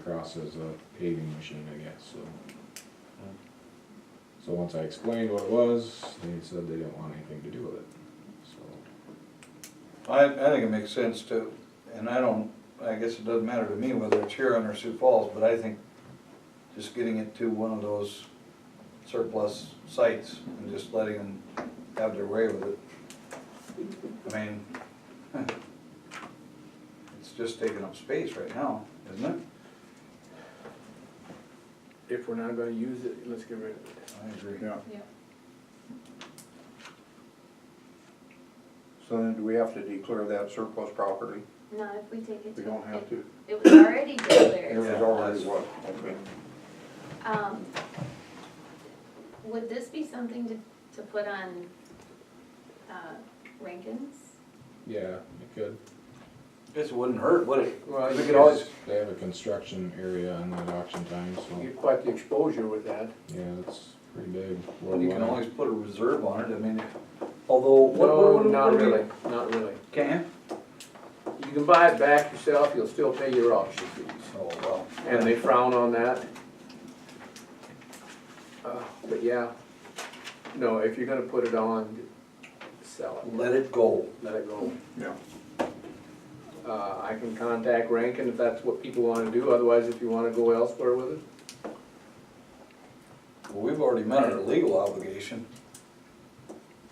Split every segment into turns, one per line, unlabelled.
across as a paving machine, I guess, so. So once I explained what it was, they said they didn't want anything to do with it, so.
I, I think it makes sense to, and I don't, I guess it doesn't matter to me whether it's Huron or Sioux Falls, but I think just getting it to one of those surplus sites and just letting them have their way with it. I mean, it's just taking up space right now, isn't it?
If we're not gonna use it, let's get rid of it.
I agree.
Yeah,
Yeah,
so then do we have to declare that surplus property?
no, if we take it to.
We don't have to.
It was already
It was
declared.
already what, okay.
Um, would this be something to, to put on, uh, Rankin's?
Yeah, it could.
This wouldn't hurt, would it?
Well,
We
you
could always,
They have a construction area on that auction time, so,
get quite the exposure with that.
yeah, it's pretty big.
well, you can
worldwide.
always put a reserve on it, I mean, although, what, what,
No,
what do
not
we-
really, not really.
Can?
You can buy it back yourself, you'll still pay your auction fees.
Oh, well.
And they frown on that. Uh, But yeah, no, if you're gonna put it on, sell it,
Let it go.
let it go.
Yeah.
Uh, I can contact Rankin if that's what people wanna do, otherwise if you wanna go elsewhere with it.
Well, we've already met our legal obligation.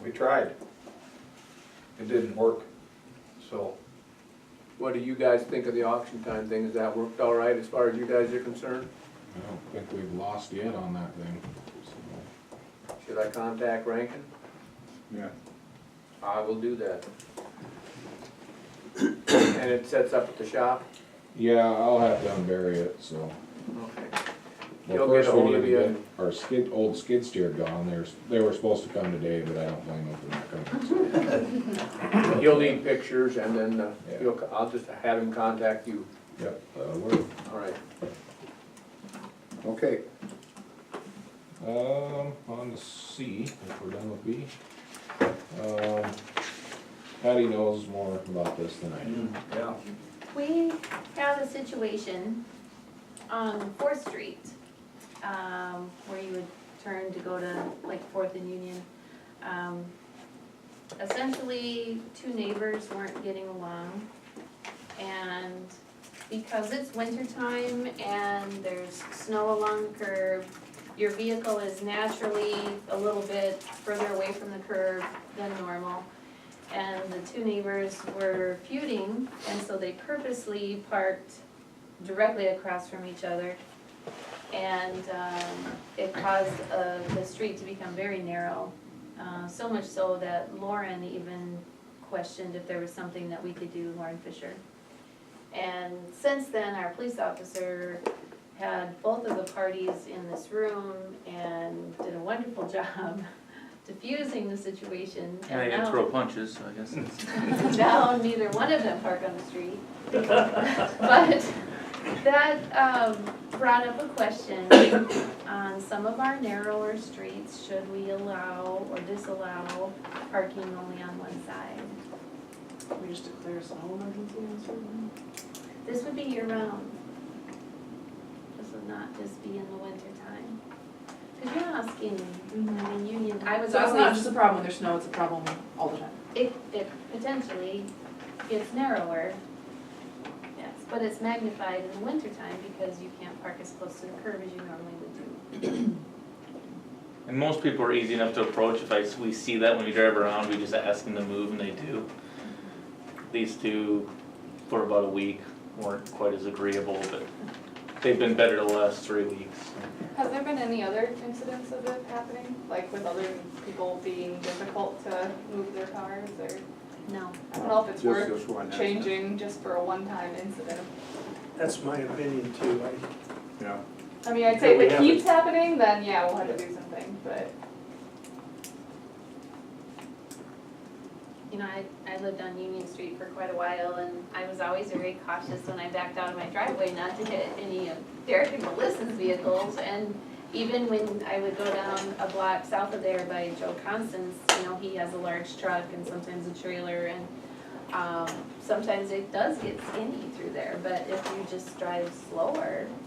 We tried. It didn't work, so.
What do you guys think of the auction time thing? Has that worked all right as far as you guys are concerned?
I don't think we've lost yet on that thing, so.
Should I contact Rankin?
Yeah.
I will do that. And it sets up at the shop?
Yeah, I'll have to unbury it, so.
Okay.
Well,
You'll get
first we
ahold
need
of
to
you
get
and-
Our skid, old skid steer gone, they're, they were supposed to come today, but I don't blame them for not coming.
You'll need pictures and then uh,
Yeah.
you'll, I'll just have him contact you.
Yep, uh, we're,
All right.
Okay,
Um, on to C, if we're done with B. Um, Patty knows more about this than I do.
Yeah.
We have a situation on Fourth Street, um, where you would turn to go to like Fourth and Union. Um, Essentially, two neighbors weren't getting along. And because it's wintertime and there's snow along the curb, your vehicle is naturally a little bit further away from the curb than normal and the two neighbors were feuding, and so they purposely parked directly across from each other. And um, it caused uh, the street to become very narrow, uh, so much so that Lauren even questioned if there was something that we could do, Lauren Fisher. And since then, our police officer had both of the parties in this room and did a wonderful job diffusing the situation.
And they
now-
didn't throw punches, so I guess it's.
now neither one of them park on the street. But that um, brought up a question on some of our narrower streets, should we allow or disallow parking only on one side?
We just declare us a home emergency on certain.
This would be year round. This would not just be in the winter time. Because you're asking, I mean, Union, I was
So it's not
always,
just a problem when there's snow, it's a problem all the time.
it, it potentially gets narrower. Yes, but it's magnified in the wintertime because you can't park as close to the curb as you normally would do.
And most people are easy enough to approach, if I, we see that when we drive around, we just ask them to move and they do. These two, for about a week, weren't quite as agreeable, but they've been better the last three weeks.
Has there been any other incidents of it happening, like with other people being difficult to move their cars or?
No,
I don't know if it's
just uh,
worth
this one. that's it.
changing just for a one-time incident.
That's my opinion too.
Yeah,
I mean, I'd
Yeah,
say
we
if it
haven't-
keeps happening, then yeah, we'll have to do something, but.
you know, I, I lived on Union Street for quite a while and I was always very cautious when I backed out of my driveway not to hit any of Derek and Melissa's vehicles. And even when I would go down a block south of there by Joe Constance, you know, he has a large truck and sometimes a trailer and um, sometimes it does get skinny through there, but if you just drive slower,